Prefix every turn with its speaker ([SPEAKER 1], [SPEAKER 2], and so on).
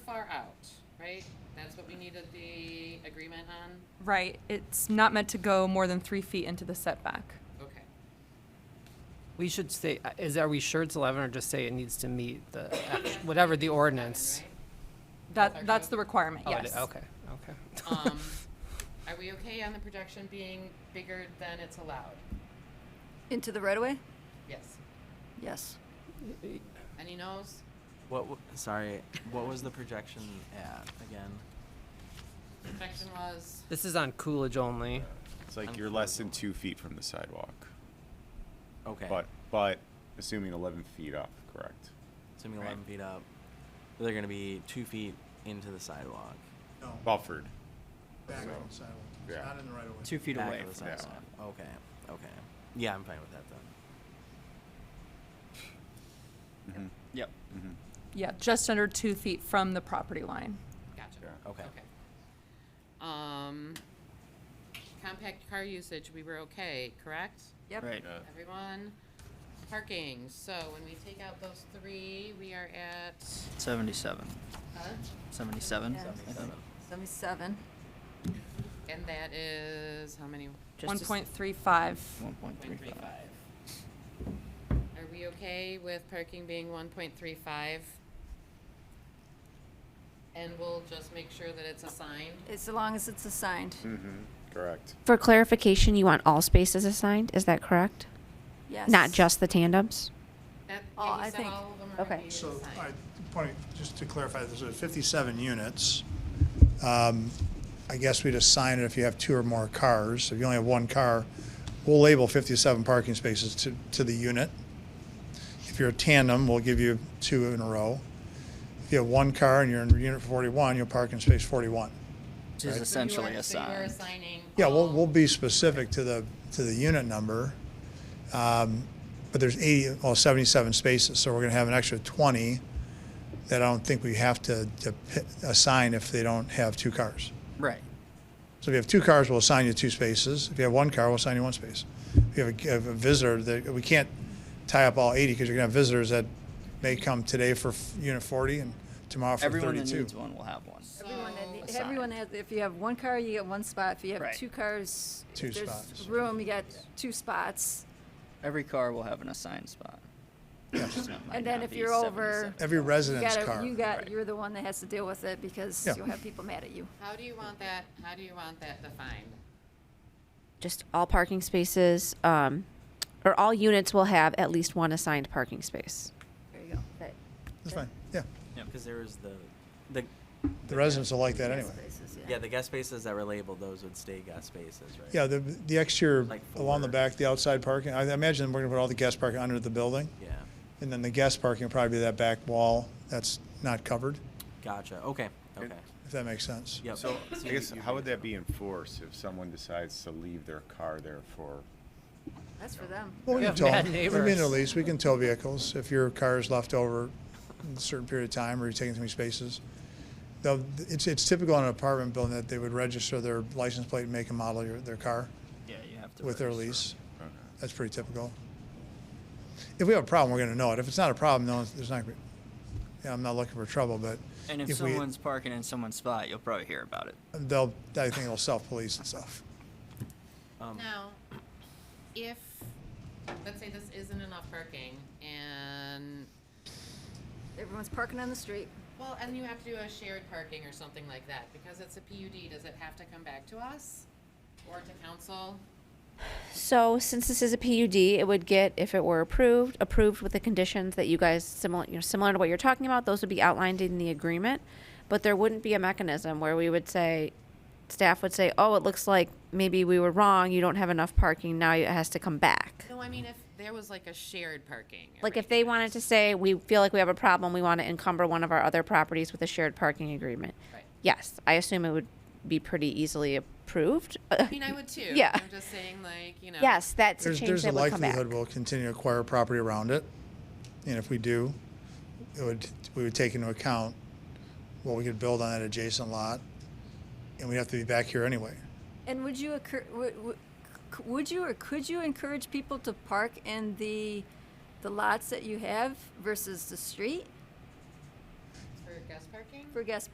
[SPEAKER 1] That's what we needed the agreement on?
[SPEAKER 2] Right, it's not meant to go more than three feet into the setback.
[SPEAKER 1] Okay.
[SPEAKER 3] We should say, uh, is, are we sure it's 11 or just say it needs to meet the, act- whatever the ordinance?
[SPEAKER 1] Okay.
[SPEAKER 2] That, that's the requirement,
[SPEAKER 3] Oh, it-
[SPEAKER 2] yes.
[SPEAKER 3] Okay, okay.
[SPEAKER 1] Um, are we okay on the projection being bigger than it's allowed?
[SPEAKER 4] Into the right of way?
[SPEAKER 1] Yes.
[SPEAKER 4] Yes.
[SPEAKER 1] Any no's?
[SPEAKER 5] What? W- sorry. What was the projection at again?
[SPEAKER 1] Projection was,
[SPEAKER 3] This is on Coolidge only.
[SPEAKER 6] It's like you're less than two feet from the sidewalk,
[SPEAKER 5] Okay.
[SPEAKER 6] but, but assuming eleven feet up, correct?
[SPEAKER 5] Assuming 11 feet up, they're going to be two feet into the sidewalk.
[SPEAKER 7] No,
[SPEAKER 6] Buffered.
[SPEAKER 7] back on
[SPEAKER 6] so,
[SPEAKER 7] the sidewalk. It's
[SPEAKER 6] yeah.
[SPEAKER 7] not in the right of way.
[SPEAKER 3] Two feet
[SPEAKER 5] back
[SPEAKER 3] away
[SPEAKER 5] of the
[SPEAKER 3] from
[SPEAKER 6] that
[SPEAKER 5] sidewalk. Okay. Okay. Yeah, I'm fine with that then.
[SPEAKER 3] Yep.
[SPEAKER 2] Yeah, just under two feet from the property line.
[SPEAKER 1] gotcha.
[SPEAKER 6] Yeah.
[SPEAKER 5] Okay.
[SPEAKER 1] Okay. Um, compact car usage, we were okay, correct?
[SPEAKER 4] Yep.
[SPEAKER 3] Right.
[SPEAKER 1] Everyone? Parking, so when we take out those three, we are at,
[SPEAKER 8] 77.
[SPEAKER 1] huh?
[SPEAKER 8] 77.
[SPEAKER 4] Yeah.
[SPEAKER 8] I think.
[SPEAKER 4] Seventy-seven.
[SPEAKER 1] And that is, how many?
[SPEAKER 8] Just
[SPEAKER 2] One
[SPEAKER 8] to s-
[SPEAKER 2] point three five.
[SPEAKER 8] 1.35.
[SPEAKER 1] Are we okay with parking being one point three five? And we'll just make sure that it's assigned?
[SPEAKER 4] As long as it's assigned.
[SPEAKER 8] Hmm.
[SPEAKER 6] Correct.
[SPEAKER 9] For clarification, you want all spaces assigned, is that correct?
[SPEAKER 4] Yes.
[SPEAKER 9] Not just the tandems?
[SPEAKER 1] That,
[SPEAKER 4] Oh,
[SPEAKER 1] yeah, you
[SPEAKER 4] I
[SPEAKER 1] said
[SPEAKER 4] think-
[SPEAKER 1] all of them are
[SPEAKER 9] okay.
[SPEAKER 1] being
[SPEAKER 7] So, all
[SPEAKER 1] assigned.
[SPEAKER 7] right, point, just to clarify, there's uh, 57 units. Um, I guess we'd assign it if you have two or more cars. If you only have one car, we'll label 57 parking spaces to, to the unit. If you're a tandem, we'll give you two in a row. If you have one car and you're in unit 41, you'll park in space 41.
[SPEAKER 8] Which is
[SPEAKER 1] So you are-
[SPEAKER 8] essentially
[SPEAKER 1] so you are
[SPEAKER 8] assigned.
[SPEAKER 1] assigning
[SPEAKER 7] Yeah, we'll,
[SPEAKER 1] all-
[SPEAKER 7] we'll be specific to the, to the unit number. Um, But there's 80, well, 77 spaces, so we're going to have an extra 20 that I don't think we have to to pi- assign if they don't have two cars.
[SPEAKER 8] Right.
[SPEAKER 7] So if you have two cars, we'll assign you two spaces. If you have one car, we'll assign you one space. If you have a- have a visitor, that, we can't tie up all 80 because you're going to have visitors that may come today for f- unit 40 and tomorrow for
[SPEAKER 8] Everyone that
[SPEAKER 7] 32.
[SPEAKER 8] needs one will have one.
[SPEAKER 4] Everyone, that-
[SPEAKER 8] Assigned.
[SPEAKER 4] everyone has, if you have one car, you get one spot. If you have
[SPEAKER 8] Right.
[SPEAKER 4] two cars, if
[SPEAKER 7] Two
[SPEAKER 4] there's
[SPEAKER 7] spots.
[SPEAKER 4] room, you got two spots.
[SPEAKER 8] Every car will have an assigned spot. Might
[SPEAKER 4] And then
[SPEAKER 8] not
[SPEAKER 4] if
[SPEAKER 8] be
[SPEAKER 4] you're over,
[SPEAKER 8] 77.
[SPEAKER 7] Every
[SPEAKER 4] you
[SPEAKER 7] resident's
[SPEAKER 4] got,
[SPEAKER 7] car.
[SPEAKER 4] you got, you're the one that has to deal with it because
[SPEAKER 7] Yeah.
[SPEAKER 4] you'll have people mad at you.
[SPEAKER 1] How do you want that, how do you want that defined?
[SPEAKER 9] Just all parking spaces, um, or all units will have at least one assigned parking space.
[SPEAKER 4] There you go.
[SPEAKER 9] That-
[SPEAKER 7] That's fine, yeah.
[SPEAKER 5] Because there was the, the,
[SPEAKER 7] The residents will like that
[SPEAKER 4] Yes,
[SPEAKER 7] anyway.
[SPEAKER 4] places,
[SPEAKER 5] yeah, the guest spaces that were labeled, those would stay guest spaces, right?
[SPEAKER 7] Yeah, the, the exterior
[SPEAKER 5] Like
[SPEAKER 7] along the
[SPEAKER 5] four.
[SPEAKER 7] back, the outside parking, I imagine we're gonna put all the guest parking under the building.
[SPEAKER 5] Yeah.
[SPEAKER 7] And then the guest parking will probably be that back wall that's not covered,
[SPEAKER 5] Gotcha. Okay. Okay.
[SPEAKER 7] if that makes sense.
[SPEAKER 5] Yep.
[SPEAKER 6] So I
[SPEAKER 5] you-
[SPEAKER 6] guess,
[SPEAKER 5] you
[SPEAKER 6] how
[SPEAKER 5] agree
[SPEAKER 6] would
[SPEAKER 5] with
[SPEAKER 6] that be enforced if someone decides to leave their car there for
[SPEAKER 4] That's for them.
[SPEAKER 7] Well, we
[SPEAKER 3] Yeah,
[SPEAKER 7] can tow, I
[SPEAKER 3] bad
[SPEAKER 7] mean, at
[SPEAKER 3] neighbors.
[SPEAKER 7] least, we can tow vehicles if your car is left over in a certain period of time or you're taking too many spaces. Though, it's, it's typical in an apartment building that they would register their license plate and make and model your, their car.
[SPEAKER 8] Yeah, you have to.
[SPEAKER 7] with their
[SPEAKER 8] register.
[SPEAKER 7] lease. That's pretty typical. If we have a problem, we're gonna know it. If it's not a problem, no, one's- there's not, gonna be- yeah, I'm not looking for trouble, but
[SPEAKER 8] And if
[SPEAKER 7] if we-
[SPEAKER 8] someone's parking in someone's spot, you'll probably hear about it.
[SPEAKER 7] they'll, I think they'll self-police and stuff.
[SPEAKER 1] Now, if, let's say this isn't enough parking and,
[SPEAKER 4] Everyone's parking on the street.
[SPEAKER 1] well, and you have to do a shared parking or something like that, because it's a PUD, does it have to come back to us? Or to council?
[SPEAKER 9] So since this is a PUD, it would get, if it were approved, approved with the conditions that you guys, similar, you know, similar to what you're talking about, those would be outlined in the agreement. But there wouldn't be a mechanism where we would say, staff would say, oh, it looks like maybe we were wrong, you don't have enough parking, now it has to come back.
[SPEAKER 1] No, I mean, if there was like a shared parking.
[SPEAKER 9] Like if they wanted to say, we feel like we have a problem, we want to encumber one of our other properties with a shared parking agreement.
[SPEAKER 1] Right.
[SPEAKER 9] Yes, I assume it would be pretty easily approved.
[SPEAKER 1] I mean, I would too.
[SPEAKER 9] Yeah.
[SPEAKER 1] I'm just saying like, you know.
[SPEAKER 9] Yes, that's a
[SPEAKER 7] There's,
[SPEAKER 9] change
[SPEAKER 7] there's a
[SPEAKER 9] that would come back.
[SPEAKER 7] likelihood we'll continue to acquire property around it. And if we do, it would, we would take into account what we could build on that adjacent lot. And we'd have to be back here anyway.
[SPEAKER 4] And would you occur, would, would- c- would you or could you encourage people to park in the, the lots that you have versus the street
[SPEAKER 1] For guest parking?
[SPEAKER 4] for guest